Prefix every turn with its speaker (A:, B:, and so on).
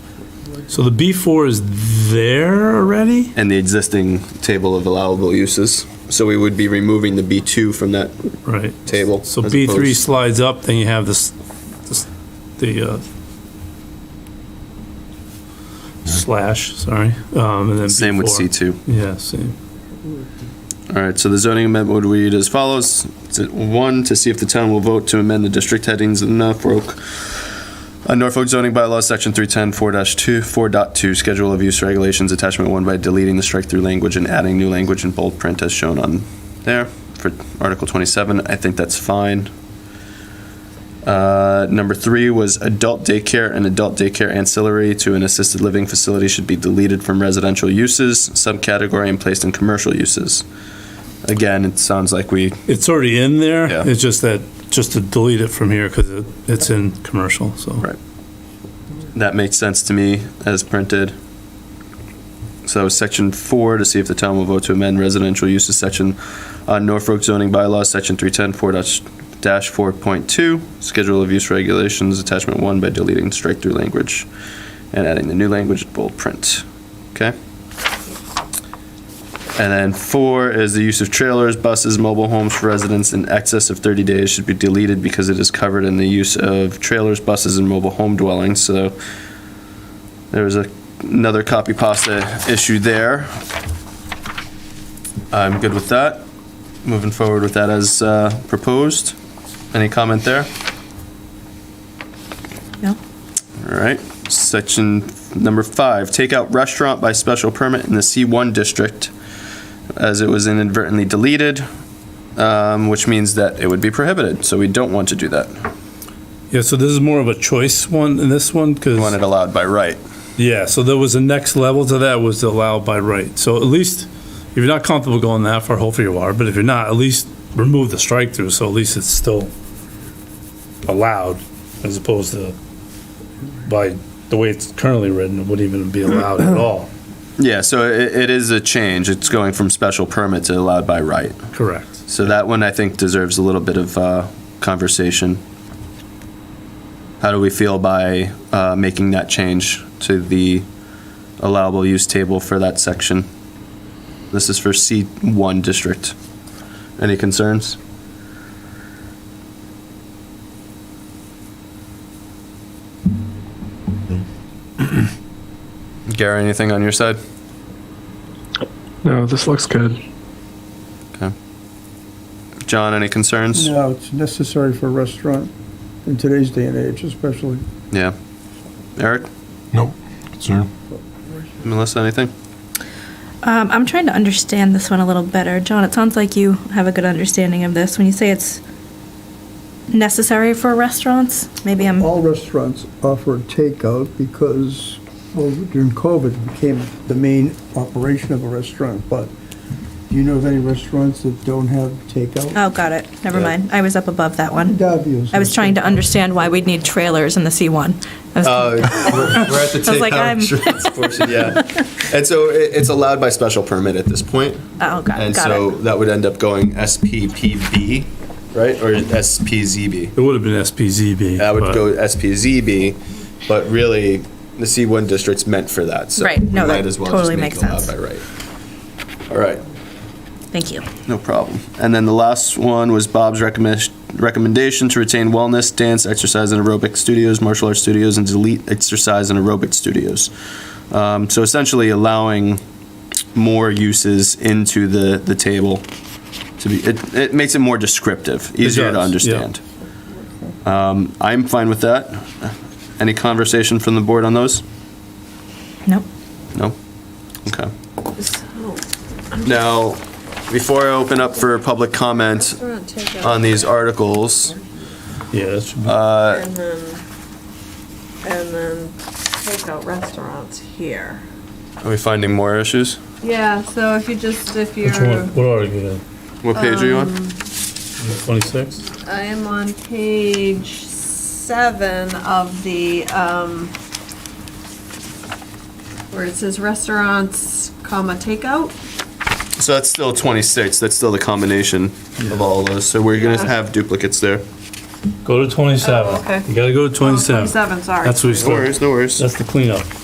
A: So the B4 is there already?
B: and the existing table of allowable uses. So we would be removing the B2 from that
A: Right.
B: table.
A: So
B: as
A: B3
B: opposed-
A: slides up, then you have this, this- the, uh, slash, sorry, um, and then
B: Same with
A: B4.
B: C2.
A: Yeah, same.
B: All right, so the zoning amendment would read as follows. It's at one, to see if the town will vote to amend the district headings in Norfolk, uh, Norfolk zoning bylaws, section 310, 4-2, 4.2, schedule of use regulations, attachment one, by deleting the strike-through language and adding new language in bold print as shown on there for Article 27. I think that's fine. Uh, Number three was adult daycare and adult daycare ancillary to an assisted living facility should be deleted from residential uses, subcategory, and placed in commercial uses. Again, it sounds like we,
A: It's already in there.
B: Yeah.
A: It's just that, just to delete it from here because it, it's in commercial, so.
B: Right. that makes sense to me as printed. So section four, to see if the town will vote to amend residential uses section on Norfolk zoning bylaws, section 310, 4 dash 4.2, schedule of use regulations, attachment one, by deleting strike-through language and adding the new language in bold print. Okay? And then four is the use of trailers, buses, mobile homes for residents in excess of 30 days should be deleted because it is covered in the use of trailers, buses, and mobile home dwellings. So there was a- another copy pasta issue there. I'm good with that. Moving forward with that as uh, proposed. Any comment there?
C: No.
B: All right, section number five, takeout restaurant by special permit in the C1 district, as it was inadvertently deleted, um, which means that it would be prohibited, so we don't want to do that.
A: Yeah, so this is more of a choice one in this one because.
B: We want it allowed by right.
A: Yeah, so there was a next level to that was allowed by right. So at least, if you're not comfortable going that far, hopefully you are, but if you're not, at least remove the strike through, so at least it's still allowed as opposed to by the way it's currently written, it wouldn't even be allowed at all.
B: Yeah, so it, it is a change, it's going from special permit to allowed by right.
A: Correct.
B: So that one, I think, deserves a little bit of uh, conversation. How do we feel by uh, making that change to the allowable use table for that section? This is for C1 district. Any concerns? Gary, anything on your side?
D: No, this looks good.
B: John, any concerns?
E: No, it's necessary for a restaurant in today's day and age especially.
B: Yeah. Eric,
F: Nope, concern.
B: Melissa, anything?
C: Um, I'm trying to understand this one a little better. John, it sounds like you have a good understanding of this. When you say it's necessary for restaurants, maybe I'm, oh,
E: All restaurants offer takeout because, well, during COVID it became the main operation of a restaurant, but do you know of any restaurants that don't have takeout?
C: oh, got it. Never mind. I was up above that one.
E: Davies.
C: I was trying to understand why we'd need trailers in the C1. I was-
B: Uh, we're- we're at the
C: I was like,
B: takeout
C: I'm-
B: insurance portion, yeah. And so it, it's allowed by special permit at this point,
C: Oh, got it,
B: and
C: got
B: so
C: it.
B: that would end up going SPPB, right, or SPZB?
A: It would have been SPZB.
B: That would
A: but-
B: go SPZB, but really, the C1 district's meant for that, so.
C: Right,
B: we
C: no, that
B: might as well just
C: totally
B: make
C: makes
B: it allowed
C: sense.
B: by right. All right,
C: Thank you.
B: no problem. And then the last one was Bob's recommend, recommendation to retain wellness, dance, exercise, and aerobic studios, martial arts studios, and delete exercise and aerobic studios. Um, so essentially allowing more uses into the, the table to be, it, it makes it more descriptive, easier to
A: does, yeah.
B: understand. Um, I'm fine with that. Any conversation from the board on those?
C: Nope.
B: No? Okay.
G: oh,
B: Now, before I open up for public comment on these articles,
A: Yeah, that should be-
B: uh,
G: And then, and then takeout restaurants here.
B: are we finding more issues?
G: Yeah, so if you just, if
A: Which
G: you're,
A: one, what are you,
B: What page are you on?
A: 26?
G: I am on page seven of the, um, where it says restaurants, comma, takeout.
B: So that's still 26, that's still the combination of all those, so we're gonna
G: Yeah.
B: have duplicates there.
A: Go to 27.
G: Oh, okay.
A: You gotta go to
G: Oh,
A: 27.
G: Twenty-seven, sorry.
A: That's what we
B: No
A: start,
B: worries, no worries.
A: that's the cleanup.